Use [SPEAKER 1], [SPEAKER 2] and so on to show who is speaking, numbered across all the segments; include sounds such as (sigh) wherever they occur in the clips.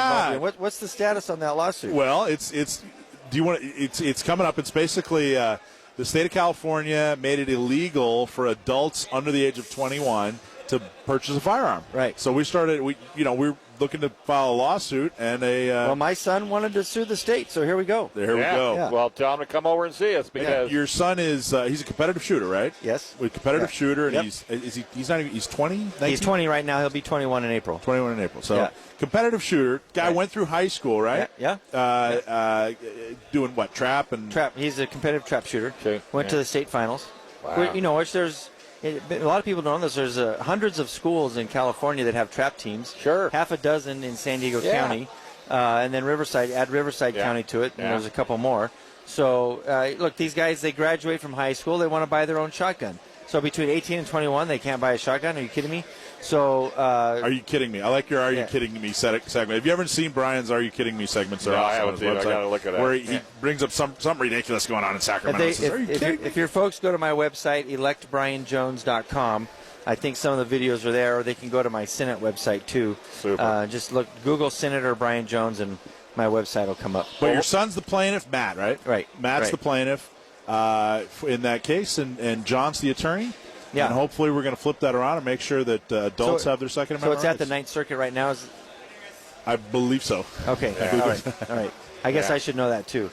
[SPEAKER 1] And what, what's the status on that lawsuit?
[SPEAKER 2] Well, it's it's. Do you want? It's it's coming up. It's basically uh, the state of California made it illegal for adults under the age of 21 to purchase a firearm.
[SPEAKER 1] Right.
[SPEAKER 2] So we started. We you know we're looking to file a lawsuit and a. Uh,
[SPEAKER 1] Well, my son wanted to sue the state, so here we go.
[SPEAKER 2] there
[SPEAKER 3] Yeah.
[SPEAKER 2] we go.
[SPEAKER 1] Yeah.
[SPEAKER 3] Well, tell him to come over and see us because
[SPEAKER 2] Your son is uh, he's a competitive shooter, right?
[SPEAKER 1] Yes.
[SPEAKER 2] With competitive
[SPEAKER 1] Yeah.
[SPEAKER 2] shooter, and
[SPEAKER 1] Yep.
[SPEAKER 2] he's is he he's not even he's 20.
[SPEAKER 1] He's 20 right now. He'll be 21 in April.
[SPEAKER 2] 21 in April. So
[SPEAKER 1] Yeah.
[SPEAKER 2] competitive shooter guy
[SPEAKER 1] Right.
[SPEAKER 2] went through high school, right?
[SPEAKER 1] Yeah,
[SPEAKER 2] Uh, uh, doing what trap and
[SPEAKER 1] Trap. He's a competitive trap shooter.
[SPEAKER 3] Okay,
[SPEAKER 1] Went to
[SPEAKER 3] yeah.
[SPEAKER 1] the state finals.
[SPEAKER 3] Wow.
[SPEAKER 1] Where- You know, which there's it, a lot of people don't know this. There's uh, hundreds of schools in California that have trap teams.
[SPEAKER 3] Sure.
[SPEAKER 1] Half a dozen in San Diego
[SPEAKER 3] Yeah.
[SPEAKER 1] County, uh, and then Riverside. Add Riverside
[SPEAKER 3] Yeah.
[SPEAKER 1] County to it, and
[SPEAKER 3] Yeah.
[SPEAKER 1] there's a couple more. So uh, look, these guys they graduate from high school. They want to buy their own shotgun. So between 18 and 21, they can't buy a shotgun. Are you kidding me? So uh,
[SPEAKER 2] Are you kidding me? I like your "Are you
[SPEAKER 1] Yeah.
[SPEAKER 2] kidding me" se- segment. Have you ever seen Brian's "Are you kidding me" segments? They're
[SPEAKER 3] No, I
[SPEAKER 2] awesome
[SPEAKER 3] haven't
[SPEAKER 2] on his
[SPEAKER 3] seen it. I
[SPEAKER 2] website,
[SPEAKER 3] gotta look it up.
[SPEAKER 2] Where he
[SPEAKER 1] Yeah.
[SPEAKER 2] brings up some something ridiculous going on in
[SPEAKER 1] If,
[SPEAKER 2] Sacramento.
[SPEAKER 1] they,
[SPEAKER 2] and says,
[SPEAKER 1] if,
[SPEAKER 2] Are you
[SPEAKER 1] if,
[SPEAKER 2] kidding
[SPEAKER 1] if your folks go to my website, electbrianjones.com, I think some of the videos are there, or they can go to my Senate website too.
[SPEAKER 3] Super.
[SPEAKER 1] Uh, just look, Google Senator Brian Jones, and my website will come up.
[SPEAKER 2] But your son's the plaintiff, Matt, right?
[SPEAKER 1] Right,
[SPEAKER 2] Matt's
[SPEAKER 1] right.
[SPEAKER 2] the plaintiff uh, f- in that case, and, and John's the attorney.
[SPEAKER 1] Yeah.
[SPEAKER 2] And hopefully, we're going to flip that around and make sure that uh, adults have their Second
[SPEAKER 1] So
[SPEAKER 2] Amendment.
[SPEAKER 1] it's at the
[SPEAKER 2] rights.
[SPEAKER 1] Ninth Circuit right now. Is,
[SPEAKER 2] I believe so.
[SPEAKER 1] okay, all right, all right. I guess
[SPEAKER 3] Yeah.
[SPEAKER 1] I should know that too.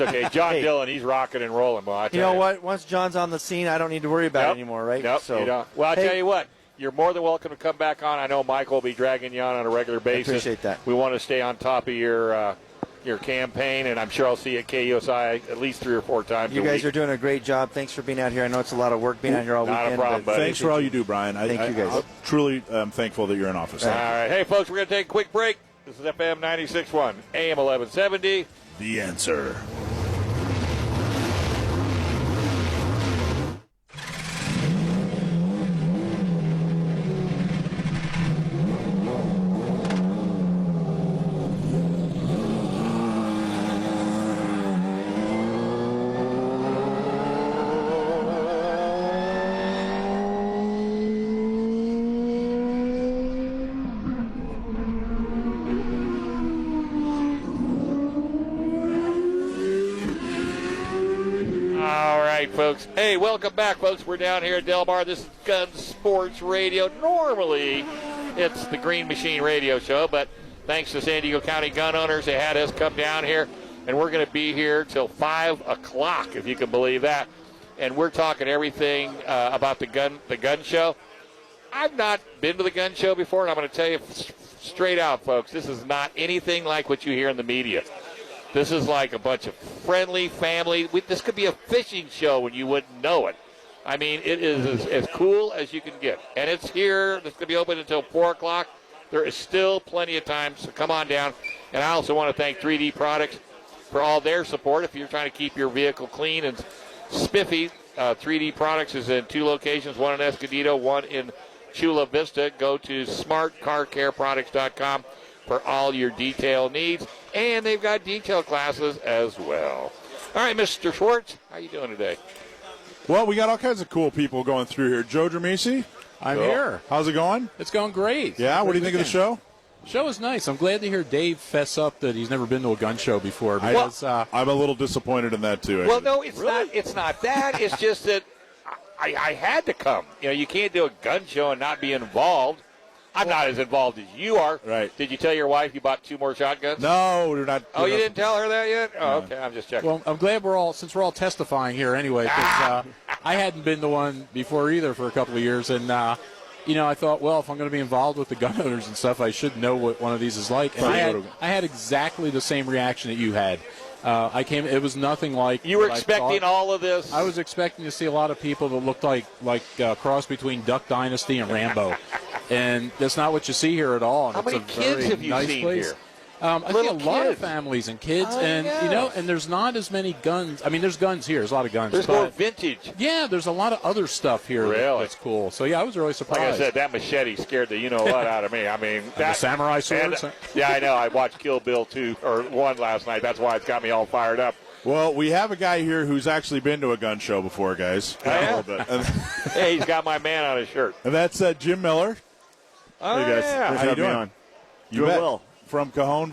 [SPEAKER 1] (laughs)
[SPEAKER 3] okay. John
[SPEAKER 1] Hey.
[SPEAKER 3] Dillon, he's rocking and rolling. Well, I tell
[SPEAKER 1] You know what? Once John's on the scene, I don't need to worry about
[SPEAKER 3] Nope.
[SPEAKER 1] it anymore, right?
[SPEAKER 3] Nope,
[SPEAKER 1] So-
[SPEAKER 3] you don't. Well, I
[SPEAKER 1] Hey,
[SPEAKER 3] tell you what, you're more than welcome to come back on. I know Michael will be dragging you on on a regular basis.
[SPEAKER 1] appreciate that.
[SPEAKER 3] We want to stay on top of your uh, your campaign, and I'm sure I'll see you at KUSI at least three or four times.
[SPEAKER 1] You
[SPEAKER 3] a
[SPEAKER 1] guys
[SPEAKER 3] week.
[SPEAKER 1] are doing a great job. Thanks for being out here. I know it's a lot of work being out here all
[SPEAKER 3] Not a
[SPEAKER 1] weekend.
[SPEAKER 3] problem,
[SPEAKER 1] but
[SPEAKER 3] buddy.
[SPEAKER 2] Thanks for all you do, Brian. I,
[SPEAKER 1] Thank you,
[SPEAKER 2] I-
[SPEAKER 1] guys.
[SPEAKER 2] I'm truly am thankful that you're in office.
[SPEAKER 3] All right, hey folks, we're going to take a quick break. This is FM 96.1, AM 1170.
[SPEAKER 2] The answer.
[SPEAKER 3] All right, folks. Hey, welcome back, folks. We're down here at Del Mar. This is Gun Sports Radio. Normally, it's the Green Machine Radio Show, but thanks to San Diego County gun owners, they had us come down here, and we're going to be here till 5 o'clock, if you can believe that. And we're talking everything uh, about the gun, the gun show. I've not been to the gun show before, and I'm going to tell you s- straight out, folks, this is not anything like what you hear in the media. This is like a bunch of friendly family. We, this could be a fishing show and you wouldn't know it. I mean, it is as, as cool as you can get. And it's here. It's going to be open until 4 o'clock. There is still plenty of time, so come on down. And I also want to thank 3D Products for all their support. If you're trying to keep your vehicle clean and spiffy, uh, 3D Products is in two locations one in Escondido, one in Chula Vista. Go to smartcarcareproducts.com for all your detail needs, and they've got detail classes as well. All right, Mr. Schwartz, how you doing today?
[SPEAKER 2] Well, we got all kinds of cool people going through here. Joe Dramisi,
[SPEAKER 4] I'm
[SPEAKER 3] Cool.
[SPEAKER 4] here.
[SPEAKER 2] how's it going?
[SPEAKER 4] It's going great.
[SPEAKER 2] Yeah, what do you think of the
[SPEAKER 3] (laughs)
[SPEAKER 2] show?
[SPEAKER 4] The show is nice. I'm glad to hear Dave fess up that he's never been to a gun show before because uh,
[SPEAKER 2] I'm a little disappointed in that too.
[SPEAKER 3] Well,
[SPEAKER 2] actually.
[SPEAKER 3] no, it's not. It's not that. (laughs) it's just that I, I had to come. You know, you can't do a gun show and not be involved. I'm not as involved as you are.
[SPEAKER 2] Right.
[SPEAKER 3] Did you tell your wife you bought two more shotguns?
[SPEAKER 2] no, we're not.
[SPEAKER 3] Oh,
[SPEAKER 2] we're
[SPEAKER 3] you
[SPEAKER 2] not-
[SPEAKER 3] didn't tell her that yet? Oh, okay. I'm just checking.
[SPEAKER 4] well, I'm glad we're all since we're all testifying here anyway.
[SPEAKER 2] (laughs)
[SPEAKER 4] 'cause, uh, I hadn't been to one before either for a couple of years, and uh, you know I thought, well, if I'm going to be involved with the gun (laughs) owners and stuff, I should know what one of these is like. And I had, I had exactly the same reaction that you had. Uh, I came. It was nothing like
[SPEAKER 3] you were
[SPEAKER 4] what I
[SPEAKER 3] expecting
[SPEAKER 4] thought.
[SPEAKER 3] all of this.
[SPEAKER 4] I was expecting to see a lot of people that looked like like a cross between Duck Dynasty and Rambo, and that's not what you see here at all. And
[SPEAKER 3] How
[SPEAKER 4] it's
[SPEAKER 3] many
[SPEAKER 4] a
[SPEAKER 3] kids
[SPEAKER 4] very
[SPEAKER 3] have you
[SPEAKER 4] nice
[SPEAKER 3] seen
[SPEAKER 4] place.
[SPEAKER 3] here?
[SPEAKER 4] Um, I
[SPEAKER 3] Little
[SPEAKER 4] see a lot of
[SPEAKER 3] kids. Oh,
[SPEAKER 4] families and kids,
[SPEAKER 3] I
[SPEAKER 4] and you
[SPEAKER 3] know.
[SPEAKER 4] know, and there's not as many guns. I mean, there's guns here. There's a lot of guns.
[SPEAKER 3] There's
[SPEAKER 4] but-
[SPEAKER 3] more vintage.
[SPEAKER 4] yeah, there's a lot of other stuff here that-
[SPEAKER 3] Really?
[SPEAKER 4] that's cool. So yeah, I was really
[SPEAKER 3] Like
[SPEAKER 4] surprised.
[SPEAKER 3] I said, that machete scared the you know what out of me. I mean, that,
[SPEAKER 4] the samurai uh, sword,
[SPEAKER 3] and-
[SPEAKER 4] so-
[SPEAKER 3] (laughs) yeah, I know. I watched Kill Bill two or one last night. That's why it's got me all fired (laughs) up.
[SPEAKER 2] Well, we have a guy here who's actually been to a gun show before, guys.
[SPEAKER 3] Oh, yeah?
[SPEAKER 2] A little bit. And,
[SPEAKER 3] Hey, he's got my man on his shirt.
[SPEAKER 2] and that's uh, Jim Miller.
[SPEAKER 3] Oh,
[SPEAKER 2] Hey, guys.
[SPEAKER 3] yeah.
[SPEAKER 2] How you doing? You
[SPEAKER 5] Doing
[SPEAKER 2] bet.
[SPEAKER 5] well.
[SPEAKER 2] From Cajon